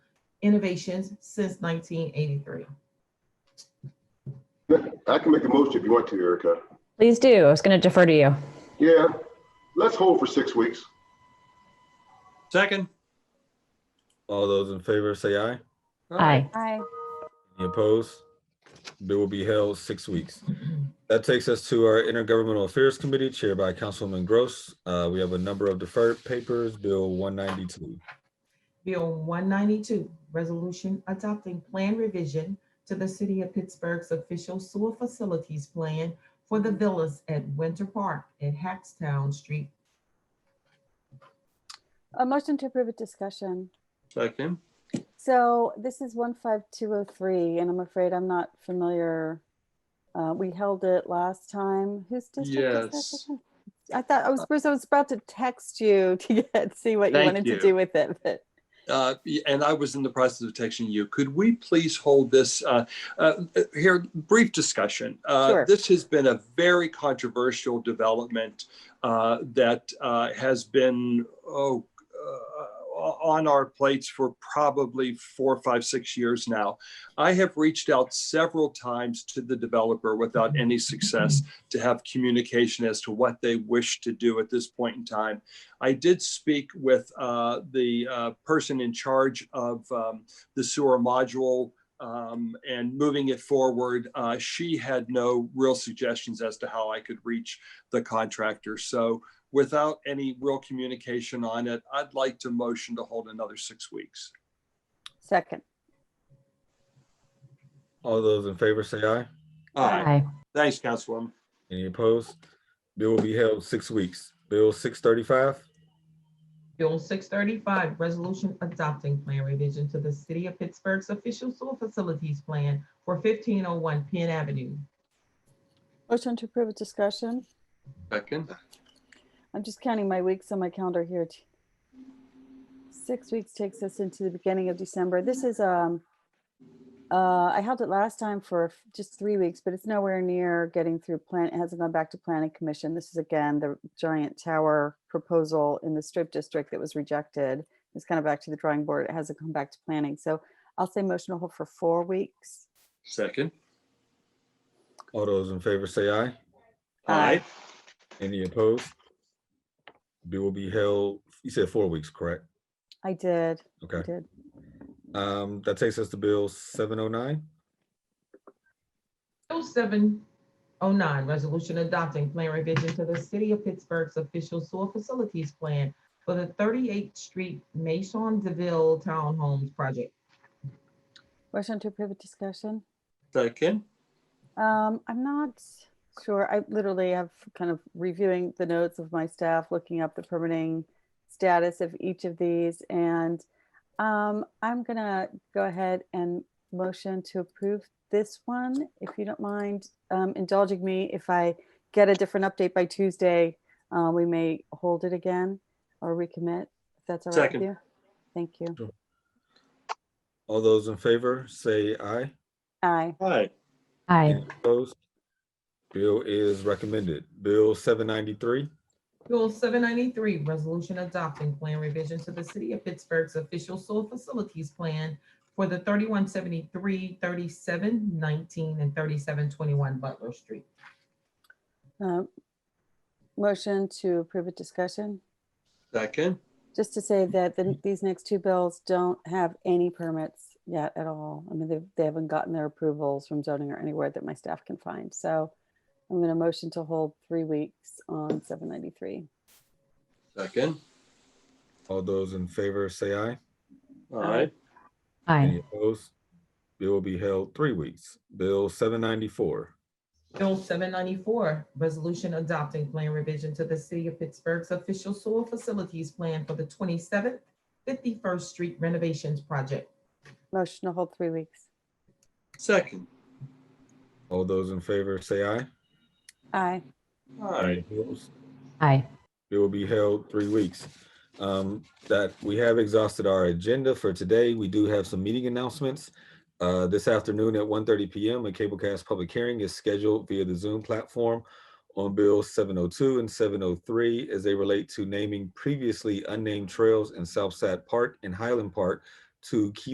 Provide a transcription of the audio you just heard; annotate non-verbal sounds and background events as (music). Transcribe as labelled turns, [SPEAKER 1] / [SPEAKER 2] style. [SPEAKER 1] innovations since 1983.
[SPEAKER 2] I can make a motion if you want to, Erica.
[SPEAKER 3] Please do. I was going to defer to you.
[SPEAKER 2] Yeah, let's hold for six weeks.
[SPEAKER 4] Second. All those in favor say aye.
[SPEAKER 3] Aye.
[SPEAKER 5] Aye.
[SPEAKER 4] Any opposed? Bill will be held six weeks. That takes us to our Intergovernmental Affairs Committee chaired by Councilwoman Gross. Uh, we have a number of deferred papers, Bill one ninety-two.
[SPEAKER 1] Bill 192, resolution adopting plan revision to the City of Pittsburgh's official sewer facilities plan for the villas at Winter Park at Hackstown Street.
[SPEAKER 5] A motion to approve a discussion.
[SPEAKER 6] Second.
[SPEAKER 5] So this is one five two oh three, and I'm afraid I'm not familiar. Uh, we held it last time. Whose district is
[SPEAKER 6] Yes.
[SPEAKER 5] that? again? I thought I was, I was about to text you (laughs) to get, see what you
[SPEAKER 6] Thank
[SPEAKER 5] wanted to
[SPEAKER 6] you.
[SPEAKER 5] do with it, but.
[SPEAKER 6] Uh, and I was in the process of texting you. Could we please hold this uh, uh, here? Brief discussion. Uh,
[SPEAKER 5] Sure.
[SPEAKER 6] This has been a very controversial development uh, that uh, has been oh, uh, on our plates for probably four, five, six years now. I have reached out several times to the developer without any success to have communication as to what they wish to do at this point in time. I did speak with uh, the uh, person in charge of um, the sewer module um, and moving it forward. Uh, she had no real suggestions as to how I could reach the contractor. So without any real communication on it, I'd like to motion to hold another six weeks.
[SPEAKER 5] Second.
[SPEAKER 4] All those in favor say aye.
[SPEAKER 6] All right. Thanks, Councilwoman.
[SPEAKER 4] Any opposed? Bill will be held six weeks. Bill six thirty-five.
[SPEAKER 1] Bill 635, resolution adopting plan revision to the City of Pittsburgh's official sewer facilities plan for 1501 Penn Avenue.
[SPEAKER 5] Motion to approve a discussion.
[SPEAKER 6] Second.
[SPEAKER 5] I'm just counting my weeks on my calendar here. Six weeks takes us into the beginning of December. This is, um, uh, I held it last time for f- just three weeks, but it's nowhere near getting through plan. It hasn't gone back to planning commission. This is again, the giant tower proposal in the strip district that was rejected. It's kind of back to the drawing board. It hasn't come back to planning. So I'll say motion to hold for four weeks.
[SPEAKER 6] Second.
[SPEAKER 4] All those in favor say aye.
[SPEAKER 6] All right.
[SPEAKER 4] Any opposed? Bill will be held, you said four weeks, correct?
[SPEAKER 5] I did, I
[SPEAKER 4] Okay.
[SPEAKER 5] did.
[SPEAKER 4] Um, that takes us to Bill seven oh nine.
[SPEAKER 1] Bill 709, resolution adopting plan revision to the City of Pittsburgh's official sewer facilities plan for the 38th Street Maison Deville Townhomes Project.
[SPEAKER 5] Motion to approve a discussion.
[SPEAKER 6] Second.
[SPEAKER 5] Um, I'm not sure. I literally have kind of reviewing the notes of my staff, looking up the permitting status of each of these, and um, I'm gonna go ahead and motion to approve this one, if you don't mind um, indulging me. If I get a different update by Tuesday, uh, we may hold it again or recommit, if that's all right
[SPEAKER 6] Second.
[SPEAKER 5] with you. Thank you.
[SPEAKER 4] All those in favor say aye.
[SPEAKER 5] Aye.
[SPEAKER 6] All right.
[SPEAKER 3] Aye.
[SPEAKER 4] Opposed? Bill is recommended. Bill seven ninety-three.
[SPEAKER 1] Bill seven ninety-three, resolution adopting plan revision to the city of Pittsburgh's official sewer facilities plan for the 3173, 37, 19, and thirty-seven twenty-one Butler Street.
[SPEAKER 5] Um, Motion to approve a discussion.
[SPEAKER 6] Second.
[SPEAKER 5] Just to say that the, these next two bills don't have any permits yet at all. I mean, they, they haven't gotten their approvals from zoning or anywhere that my staff can find. So I'm going to motion to hold three weeks on seven ninety-three.
[SPEAKER 6] Second.
[SPEAKER 4] All those in favor say aye.
[SPEAKER 6] All right.
[SPEAKER 3] Aye.
[SPEAKER 4] Any opposed? Bill will be held three weeks. Bill seven ninety-four.
[SPEAKER 1] Bill seven ninety-four, resolution adopting plan revision to the city of Pittsburgh's official sewer facilities plan for the twenty-seventh, fifty-first street renovations project.
[SPEAKER 5] Motion to hold three weeks.
[SPEAKER 6] Second.
[SPEAKER 4] All those in favor say aye.
[SPEAKER 5] Aye.
[SPEAKER 6] All right.
[SPEAKER 4] Opposed?
[SPEAKER 3] Aye.
[SPEAKER 4] It will be held three weeks. Um, that we have exhausted our agenda for today. We do have some meeting announcements. Uh, this afternoon at 1:30 PM, a Cablecast public hearing is scheduled via the Zoom platform on Bill seven oh two and seven oh three as they relate to naming previously unnamed trails in South Sad Park and Highland Park to Key